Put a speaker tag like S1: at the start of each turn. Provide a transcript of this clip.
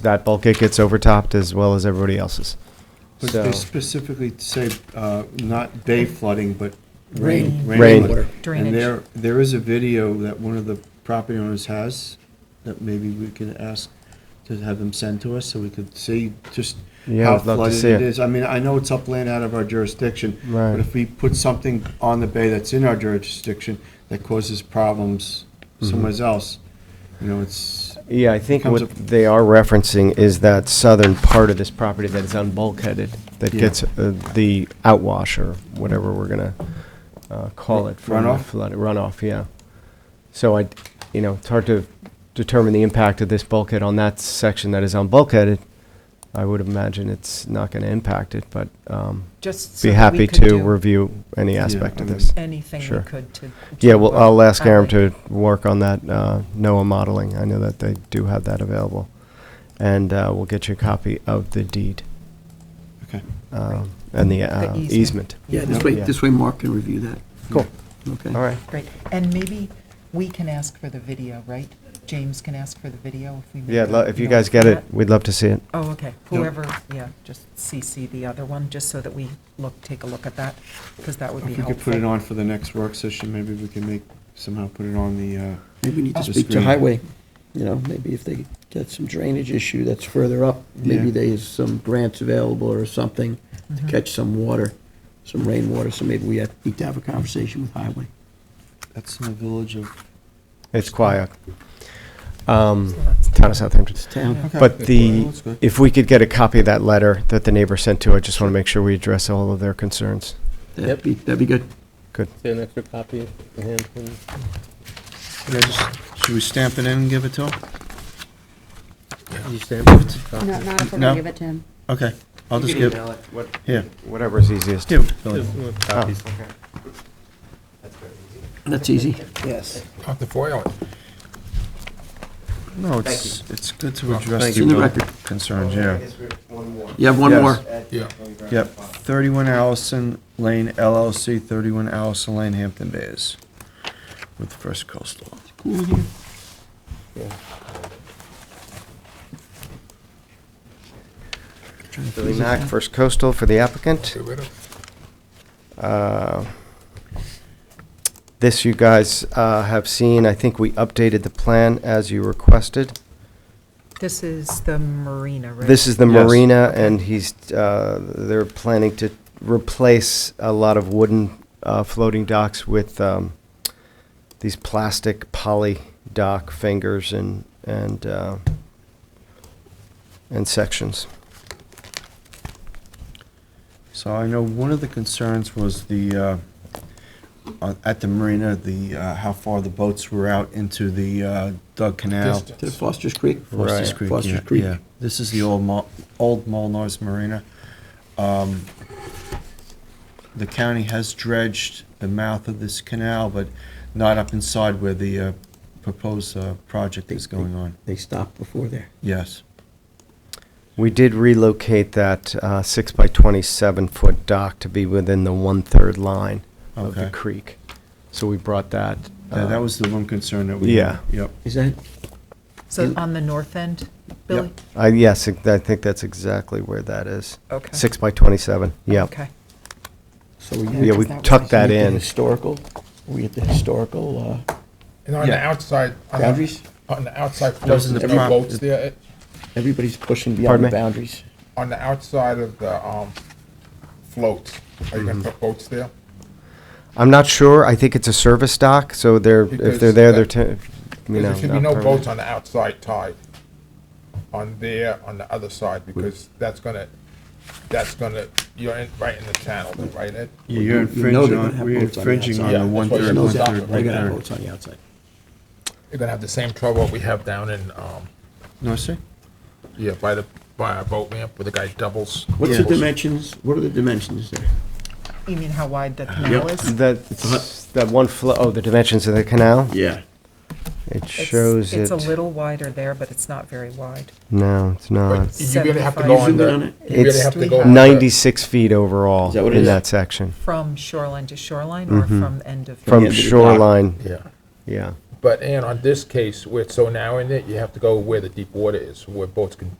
S1: that bulkhead gets overtopped as well as everybody else's.
S2: But
S1: So-
S2: they specifically say, uh, not bay flooding, but rain.
S3: Rain.
S1: Rain.
S3: Drainage.
S2: And there, there is a video that one of the property owners has that maybe we can ask to have them send to us so we could see just
S1: Yeah,
S2: how
S1: I'd love to
S2: flooded
S1: see it.
S2: it is. I mean, I know it's upland out of our jurisdiction,
S1: Right.
S2: but if we put something on the bay that's in our jurisdiction that causes problems
S1: Mm-hmm.
S2: somewhere else, you know, it's,
S1: Yeah, I think
S2: Comes
S1: what
S2: up-
S1: they are referencing is that southern part of this property that is unbulkheaded, that
S2: Yeah.
S1: gets uh, the outwash or whatever we're gonna uh, call it. from the
S2: Runoff?
S1: flood- Runoff, yeah. So I, you know, it's hard to determine the impact of this bulkhead on that section that is unbulkheaded. I would imagine it's not gonna impact it, but um,
S3: Just
S1: be
S3: so that we
S1: happy
S3: could
S1: to
S3: do
S1: review any aspect
S2: I
S1: of
S2: mean-
S1: this.
S3: Anything we
S1: Sure.
S3: could to.
S1: Yeah, well, I'll ask Aaron
S3: Alley.
S1: to work on that uh, NOAA modeling. I know that they do have that available. And uh, we'll get you a copy of the deed
S2: okay.
S1: um, and the uh,
S3: The
S1: easement.
S4: Yeah, this way, this way Mark can review that,
S1: Cool,
S4: okay?
S1: all right.
S3: Great, and maybe we can ask for the video, right? James can ask for the video if we. make
S1: Yeah,
S3: it.
S1: lo- if you
S3: know,
S1: guys get it,
S3: that-
S1: we'd love to see it.
S3: Oh, okay, whoever, yeah, just CC the other one, just so that we look, take a look at that, because that would be
S2: If we
S3: helpful.
S2: could put it on for the next work session, maybe we can make, somehow put it on the, uh,
S4: Maybe we need to
S2: The
S4: speak to
S2: screen.
S4: Highway, you know, maybe if they get some drainage issue that's further up, maybe
S2: Yeah.
S4: there's some grants available or something to catch some water, some rainwater, so maybe we have- need to have a conversation with Highway.
S2: that's in the village of
S1: It's quiet. Um,
S3: So that's-
S1: Town of Southampton.
S4: It's town,
S2: Okay.
S1: But
S2: Well,
S1: the,
S2: that's good.
S1: if we could get a copy of that letter that the neighbor sent to, I just want to make sure we address all of their concerns.
S4: that'd be, that'd be good.
S1: Good.
S5: Say an extra copy in hand, please.
S2: Should I just- should we stamp it in and give it to him?
S5: You stamp it?
S6: Not, not if we're
S2: No.
S6: gonna give it to him.
S2: Okay, I'll just give, here,
S1: Whatever's easiest. Oh.
S2: here. Billy.
S5: Just one copy.
S4: That's easy.
S7: Have to foil it.
S2: No, it's, it's good to address
S4: It's in the
S2: the
S4: record.
S2: concerns, yeah.
S4: You have one
S2: Yes.
S4: more.
S7: Yeah.
S2: Yep, 31 Allison Lane LLC, 31 Allison Lane, Hampton Bays, with First Coastal.
S4: Cool here. Trying to
S1: Billy
S4: figure
S1: Mack,
S4: out-
S1: First Coastal for the applicant.
S7: Get rid of it.
S1: Uh, This you guys uh, have seen, I think we updated the plan as you requested.
S3: This is the marina, right?
S1: This is the
S2: Yes.
S1: marina, and he's, uh, they're planning to replace a lot of wooden uh, floating docks with um, these plastic poly dock fingers and, and, uh, and sections.
S2: So I know one of the concerns was the, uh, on- at the marina, the, uh, how far the boats were out into the uh, Dug Canal.
S7: Distance.
S4: To Foster's Creek?
S2: Foster's Creek, yeah,
S4: Foster's Creek.
S2: yeah. This is the old Mul- old Molnar's Marina. Um, The county has dredged the mouth of this canal, but not up inside where the uh, proposed uh, project is going on.
S4: They stopped before there.
S2: Yes.
S1: We did relocate that uh, six by twenty-seven foot dock to be within the one-third line of the
S2: Okay.
S1: creek. So we brought that.
S2: Tha- That
S1: uh,
S2: was the one concern that we had. Yep.
S4: Is that,
S3: So on the north end, Billy?
S1: uh, I, yes, ex- I think that's exactly where that is.
S3: Okay.
S1: Six by twenty-seven, yeah.
S3: Okay,
S4: so we.
S1: Yeah, we
S3: Because that
S1: tucked
S3: was-
S1: that
S4: Make the
S1: in.
S4: Historical, we at the historical, uh,
S7: And on the
S2: Yeah.
S7: outside, on the,
S4: boundaries,
S7: on the outside
S2: Those are
S7: portion,
S2: the
S7: of the
S2: prop-
S7: boats there, it-
S4: everybody's pushing
S1: Pardon
S4: beyond the
S1: me?
S4: boundaries.
S7: on the outside of the, um, floats, are you gonna put boats there?
S1: I'm not sure, I think it's a service dock, so they're, if
S7: Because
S1: they're there, they're,
S7: that-
S1: te- you know.
S7: There should be
S1: not
S7: no
S1: permanent.
S7: boats on the outside tide, on there, on the other side, because that's gonna, that's gonna, you're in, right in the channel, right, Ed?
S2: Yeah, You're
S4: You- you know
S2: infringing
S4: they're gonna
S2: on,
S4: have
S2: we're
S4: boats on the
S2: infringing on
S7: outside.
S2: the
S7: Yeah,
S2: one
S7: that's why
S2: third,
S7: you
S2: one
S7: know
S4: They're
S2: third, one
S4: gonna have
S2: third.
S4: boats on the outside.
S7: You're gonna have the same trouble we have down in, um,
S2: No, sir?
S7: yeah, by the, by our boat ramp, where the guy doubles.
S4: What's the
S7: doubles.
S4: dimensions, what are the dimensions there?
S3: you mean how wide the canal is?
S1: That, that one flow, oh, the dimensions of the canal?
S4: Yeah.
S1: It
S3: It's-
S1: shows it.
S3: It's a little wider there, but it's not very wide.
S1: No, it's not.
S7: You're gonna
S3: Seventy-five.
S7: have to go
S4: Zoom
S7: on
S4: in on
S7: the,
S4: it.
S7: you're gonna
S1: It's
S7: have to go on the-
S1: Ninety-six feet overall
S4: Is that what it
S1: in
S4: is?
S1: that section,
S3: From shoreline to shoreline or from end of?
S1: from
S4: end of the dock.
S1: shoreline,
S7: Yeah.
S1: yeah.
S7: But, and on this case, where it's so narrow in it, you have to go where the deep water is, where boats can